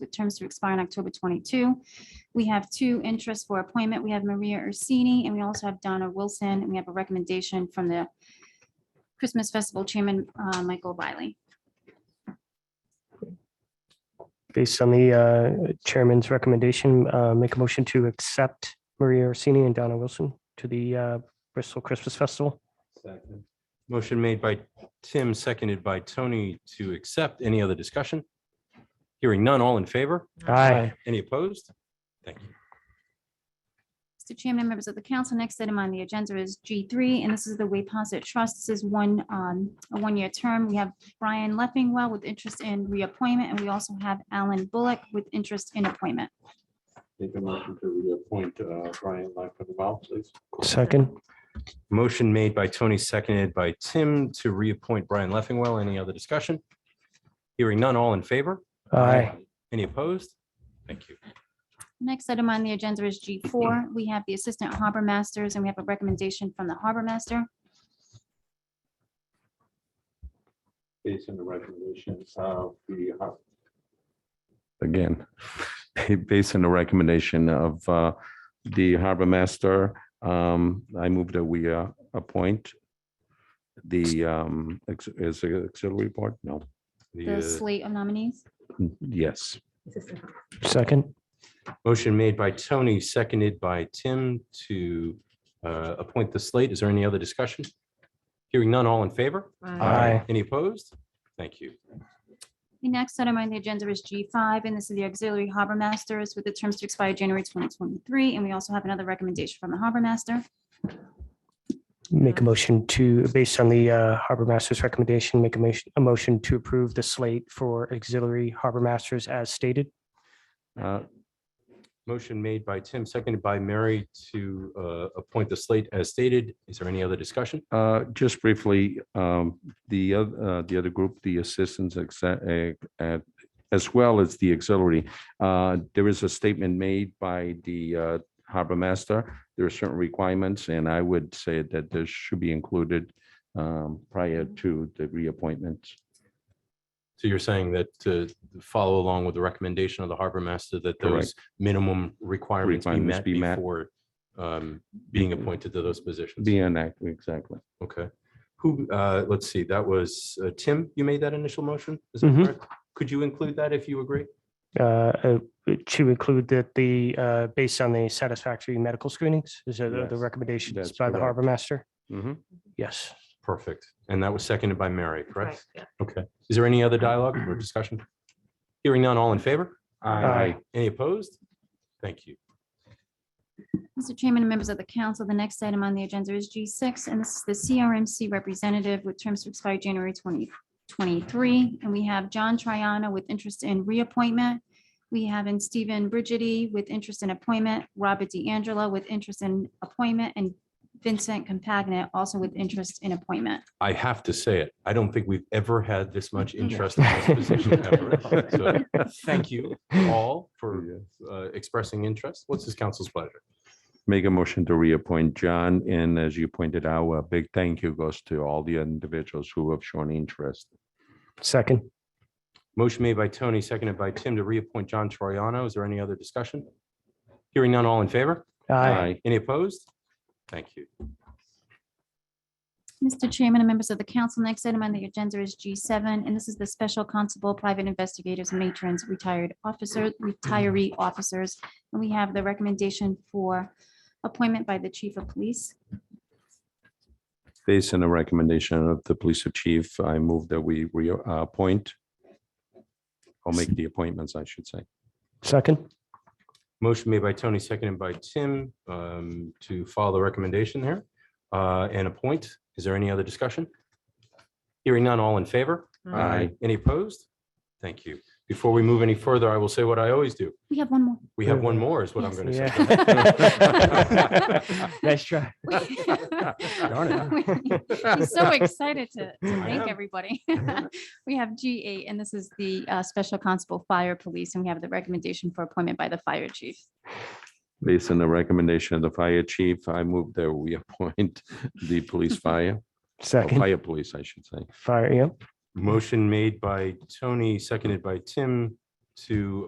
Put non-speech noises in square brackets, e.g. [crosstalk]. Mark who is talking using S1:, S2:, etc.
S1: with terms to expire on October 22. We have two interests for appointment. We have Maria Ursini, and we also have Donna Wilson, and we have a recommendation from the Christmas Festival Chairman, uh, Michael Wiley.
S2: Based on the uh, chairman's recommendation, uh, make a motion to accept Maria Orsini and Donna Wilson to the uh, Bristol Christmas Festival.
S3: Second.
S4: Motion made by Tim, seconded by Tony to accept. Any other discussion? Hearing none, all in favor?
S2: Aye.
S4: Any opposed? Thank you.
S1: Mr. Chairman, members of the council, next item on the agenda is G3, and this is the Waypossit Trust. This is one, um, a one-year term. We have Brian Leffingwell with interest in reappointment, and we also have Alan Bullock with interest in appointment.
S3: Make a motion to reappoint uh, Brian Lackland, please.
S2: Second.
S4: Motion made by Tony, seconded by Tim to reappoint Brian Leffingwell. Any other discussion? Hearing none, all in favor?
S2: Aye.
S4: Any opposed? Thank you.
S1: Next item on the agenda is G4. We have the Assistant Harbor Masters, and we have a recommendation from the Harbor Master.
S3: Based on the recommendations of the uh, Har-
S5: again, [laughs] based on the recommendation of uh, the harbor master, um, I move that we uh, appoint the, um, ex- is it auxiliary board? No,
S1: The
S4: The uh,
S1: slate of nominees.
S5: yes,
S2: Second.
S4: motion made by Tony, seconded by Tim to uh, appoint the slate. Is there any other discussion? Hearing none, all in favor?
S2: Aye.
S4: Any opposed? Thank you.
S1: The next item on the agenda is G5, and this is the auxiliary harbor masters with the terms to expire January 2023. And we also have another recommendation from the harbor master.
S2: Make a motion to, based on the uh, Harbor Masters recommendation, make a motion, a motion to approve the slate for auxiliary Harbor Masters as stated.
S5: Uh,
S4: Motion made by Tim, seconded by Mary to uh, appoint the slate as stated. Is there any other discussion?
S5: uh, just briefly, um, the, oth- uh, the other group, the assistants, exa- eh, eh, as well as the auxiliary, uh, there is a statement made by the uh, harbor master. There are certain requirements, and I would say that this should be included um, prior to the reappointment.
S4: So you're saying that to follow along with the recommendation of the harbor master that those
S5: Correct.
S4: minimum requirements be
S5: Requirements
S4: met
S5: be met.
S4: before um, being appointed to those positions?
S5: Be an act, exactly.
S4: Okay. Who, uh, let's see, that was uh, Tim, you made that initial motion? Is that
S2: Mhm.
S4: correct? Could you include that if you agree?
S2: Uh, uh, To include that the, uh, based on the satisfactory medical screenings, is that the- the
S5: Yes,
S2: recommendations
S5: that's
S2: by the
S5: correct.
S2: Harbor Master? Yes.
S4: Perfect. And that was seconded by Mary, correct?
S6: Correct, yeah.
S4: Okay. Is there any other dialogue or discussion? Hearing none, all in favor?
S2: Aye.
S4: Any opposed? Thank you.
S1: Mr. Chairman and members of the council, the next item on the agenda is G6, and this is the CRMC representative with terms to expire January 2023. And we have John Triano with interest in reappointment. We have in Stephen Brigidi with interest in appointment, Robert DeAngelo with interest in appointment, and Vincent Compagna also with interest in appointment.
S4: I have to say it. I don't think we've ever had this much interest in this position ever. So Thank you all for uh, expressing interest. What's this council's pleasure?
S5: Make a motion to reappoint John, and as you pointed out, a big thank you goes to all the individuals who have shown interest.
S2: Second.
S4: Motion made by Tony, seconded by Tim to reappoint John Troiano. Is there any other discussion? Hearing none, all in favor?
S2: Aye.
S4: Any opposed? Thank you.
S1: Mr. Chairman and members of the council, next item on the agenda is G7, and this is the Special Constable, Private Investigators, Matrons, Retired Officers, Retiree Officers. And we have the recommendation for appointment by the Chief of Police.
S5: Based on the recommendation of Uh, the police chief, I move that we reappoint. I'll make the appointments, I should say.
S2: Second.
S4: Motion made by Tony, seconded by Tim um, to follow the recommendation there uh, and appoint. Is there any other discussion? Hearing none, all in favor?
S5: Aye.
S4: Any opposed? Thank you. Before we move any further, I will say what I always do.
S1: We have one more. [laughs]
S4: We have one more is what I'm going to say.
S2: Yeah. [laughs] Nice try.
S4: Darn
S1: I'm so excited to to
S4: I
S1: thank
S4: am.
S1: everybody. [laughs] We have G8, and this is the uh, Special Constable, Fire Police, and we have the recommendation for appointment by the Fire Chief.
S5: Based on the recommendation of the fire chief, I move that we [laughs] appoint the police fire, or
S2: Second.
S5: fire police, I should say.
S2: Fire, yeah.
S4: Motion made by Tony, seconded by Tim to